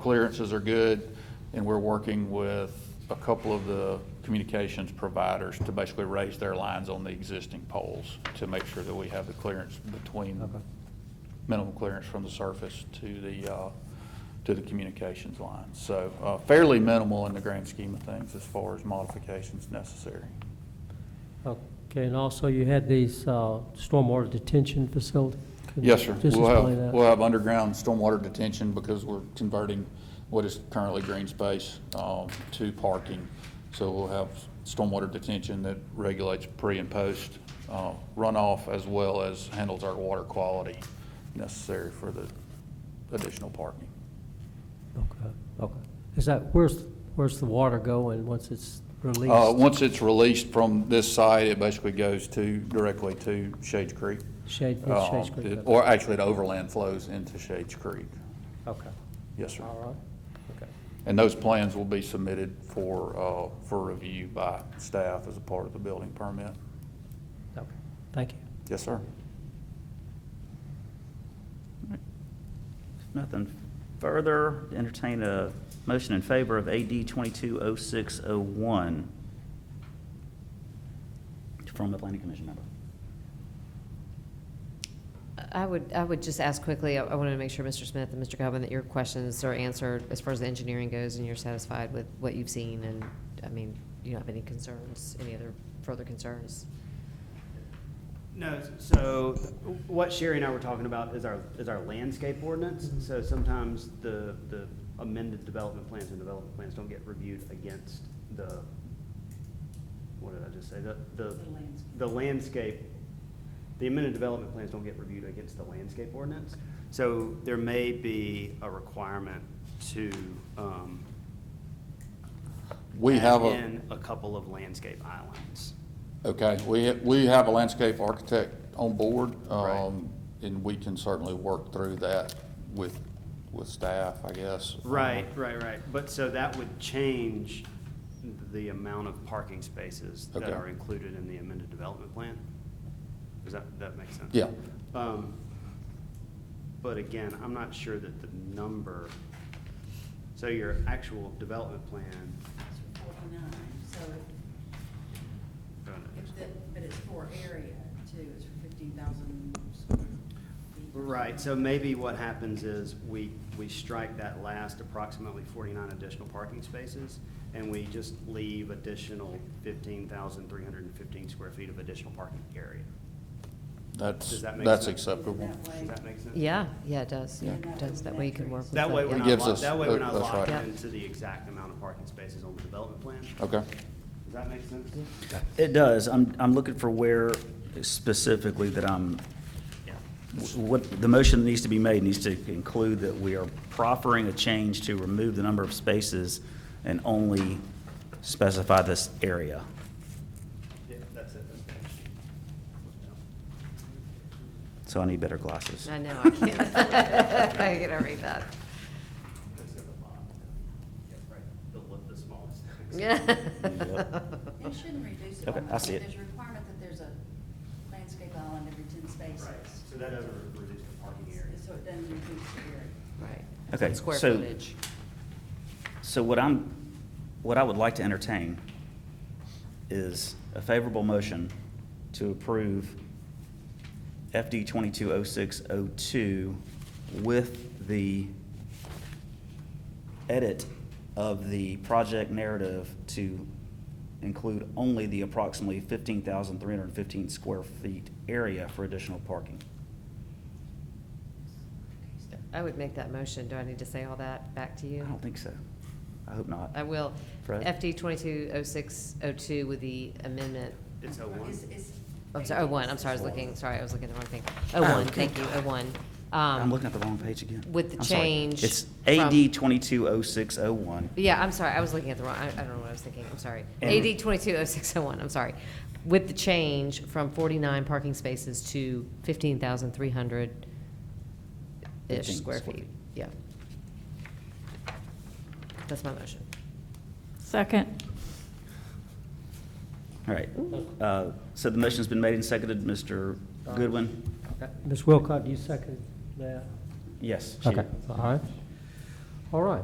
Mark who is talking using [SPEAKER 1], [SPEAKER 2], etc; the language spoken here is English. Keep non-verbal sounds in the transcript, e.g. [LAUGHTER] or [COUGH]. [SPEAKER 1] clearances are good, and we're working with a couple of the communications providers to basically raise their lines on the existing poles to make sure that we have the clearance between,
[SPEAKER 2] Okay.
[SPEAKER 1] minimum clearance from the surface to the, uh, to the communications line. So uh, fairly minimal in the grand scheme of things as far as modifications necessary.
[SPEAKER 2] Okay, and also you had these uh, stormwater detention facility? Could
[SPEAKER 1] Yes, sir.
[SPEAKER 2] you Just
[SPEAKER 1] We'll
[SPEAKER 2] explain
[SPEAKER 1] have, we'll
[SPEAKER 2] that.
[SPEAKER 1] have underground stormwater detention because we're converting what is currently green space um, to parking. So we'll have stormwater detention that regulates pre and post uh, runoff as well as handles our water quality necessary for the additional parking.
[SPEAKER 2] Okay, okay. Is that, where's, where's the water going once it's released?
[SPEAKER 1] Uh, Once it's released from this site, it basically goes to, directly to Shades Creek.
[SPEAKER 2] Shade, it's Shades
[SPEAKER 1] Um,
[SPEAKER 2] Creek.
[SPEAKER 1] it- Or actually, it overland flows into Shades Creek.
[SPEAKER 2] Okay,
[SPEAKER 1] Yes, sir.
[SPEAKER 2] all right, okay.
[SPEAKER 1] And those plans will be submitted for, uh, for review by staff as a part of the building permit.
[SPEAKER 2] Okay, thank you.
[SPEAKER 1] Yes, sir.
[SPEAKER 3] Nothing further. Entertain a motion in favor of AD 220601 from the planning commission member.
[SPEAKER 4] I would, I would just ask quickly, I I wanted to make sure, Mr. Smith and Mr. Calvin, that your questions are answered as far as the engineering goes, and you're satisfied with what you've seen, and, I mean, you don't have any concerns, any other further concerns?
[SPEAKER 5] No, s- so what Sherry and I were talking about is our, is our landscape ordinance. So sometimes the, the amended development plans and development plans don't get reviewed against the, what did I just say? The, the. The landscape, the amended development plans don't get reviewed against the landscape ordinance. So there may be a requirement to, um,
[SPEAKER 1] We
[SPEAKER 5] add
[SPEAKER 1] have a,
[SPEAKER 5] In a couple of landscape islands.
[SPEAKER 1] okay, we, we have a landscape architect on board. um, And we can certainly work through that with, with staff, I guess.
[SPEAKER 5] Right, right, right. But so that would change the amount of parking spaces that
[SPEAKER 1] Okay.
[SPEAKER 5] are included in the amended development plan? Does that, that make sense?
[SPEAKER 1] Yeah.
[SPEAKER 5] Um, But again, I'm not sure that the number, so your actual development plan,
[SPEAKER 6] It's forty-nine, so if- if,
[SPEAKER 5] uh,
[SPEAKER 6] the- but it's for area too, it's for fifteen thousand square feet.
[SPEAKER 5] right, so maybe what happens is we, we strike that last approximately forty-nine additional parking spaces, and we just leave additional fifteen thousand three hundred and fifteen square feet of additional parking area.
[SPEAKER 1] That's,
[SPEAKER 5] Does that make
[SPEAKER 1] that's
[SPEAKER 5] sense?
[SPEAKER 1] acceptable.
[SPEAKER 6] That way-
[SPEAKER 5] Does that make sense?
[SPEAKER 4] Yeah, yeah, it does,
[SPEAKER 6] Yeah.
[SPEAKER 4] it does, that way you can work with.
[SPEAKER 5] That way,
[SPEAKER 4] the-
[SPEAKER 5] we're
[SPEAKER 4] yeah.
[SPEAKER 1] It gives
[SPEAKER 5] not, lo-
[SPEAKER 1] us-
[SPEAKER 5] that way we're not
[SPEAKER 1] that's
[SPEAKER 5] locked
[SPEAKER 4] right.
[SPEAKER 5] into the exact amount of parking spaces on the development plan. Does
[SPEAKER 1] Okay.
[SPEAKER 5] that make sense?
[SPEAKER 3] It does. I'm, I'm looking for where specifically that I'm, what, the motion that needs to be made needs to include that we are proffering a change to remove the number of spaces and only specify this area.
[SPEAKER 5] Yeah, that's it. that's it.
[SPEAKER 3] So I need better glasses.
[SPEAKER 4] I know, I can't, [LAUGHS] I can't read [LAUGHS] that.
[SPEAKER 5] That's at the bottom. Yeah, right. The, li- the smallest.
[SPEAKER 6] It shouldn't reduce it. by
[SPEAKER 3] Okay, I
[SPEAKER 6] much,
[SPEAKER 3] see
[SPEAKER 6] but
[SPEAKER 3] it.
[SPEAKER 6] There's a requirement that there's a landscape island every ten spaces.
[SPEAKER 5] Right, so that doesn't re- reduce the parking area.
[SPEAKER 6] So it doesn't reduce the area.
[SPEAKER 4] Right.
[SPEAKER 3] Okay,
[SPEAKER 4] Square
[SPEAKER 3] so-
[SPEAKER 4] footage.
[SPEAKER 3] So what I'm, what I would like to entertain is a favorable motion to approve FD 220602 with the edit of the project narrative to include only the approximately 15,315 square feet area for additional parking.
[SPEAKER 4] I would make that motion, do I need to say all that back to
[SPEAKER 3] I
[SPEAKER 4] you?
[SPEAKER 3] don't think so. I hope not.
[SPEAKER 4] I will.
[SPEAKER 3] Fred?
[SPEAKER 4] FD 220602 with the amendment,
[SPEAKER 5] It's a Oh, one.
[SPEAKER 6] Is- is-
[SPEAKER 4] I'm sorry, 01, I'm sorry, I was looking, sorry, I was looking at the wrong thing. 01, thank you, 01.
[SPEAKER 3] Oh, I'm
[SPEAKER 4] Um,
[SPEAKER 3] looking at the wrong page again.
[SPEAKER 4] with the
[SPEAKER 3] I'm sorry.
[SPEAKER 4] change
[SPEAKER 3] It's
[SPEAKER 4] from-
[SPEAKER 3] AD twenty-two oh six oh one.
[SPEAKER 4] Yeah, I'm sorry, I was looking at the wrong, I I don't know what I was thinking, I'm sorry.
[SPEAKER 3] And-
[SPEAKER 4] AD 220601, I'm sorry. With the change from 49 parking spaces to 15,300-ish
[SPEAKER 3] 15
[SPEAKER 4] square
[SPEAKER 3] square
[SPEAKER 4] feet.
[SPEAKER 3] feet.
[SPEAKER 4] Yeah. That's my motion.
[SPEAKER 7] Second.
[SPEAKER 3] All right. Uh, So the motion's been made and seconded. Mr. Goodwin?
[SPEAKER 2] Ms. Wilcott, do you second that?
[SPEAKER 3] Yes. she-
[SPEAKER 2] Okay, all right. All right.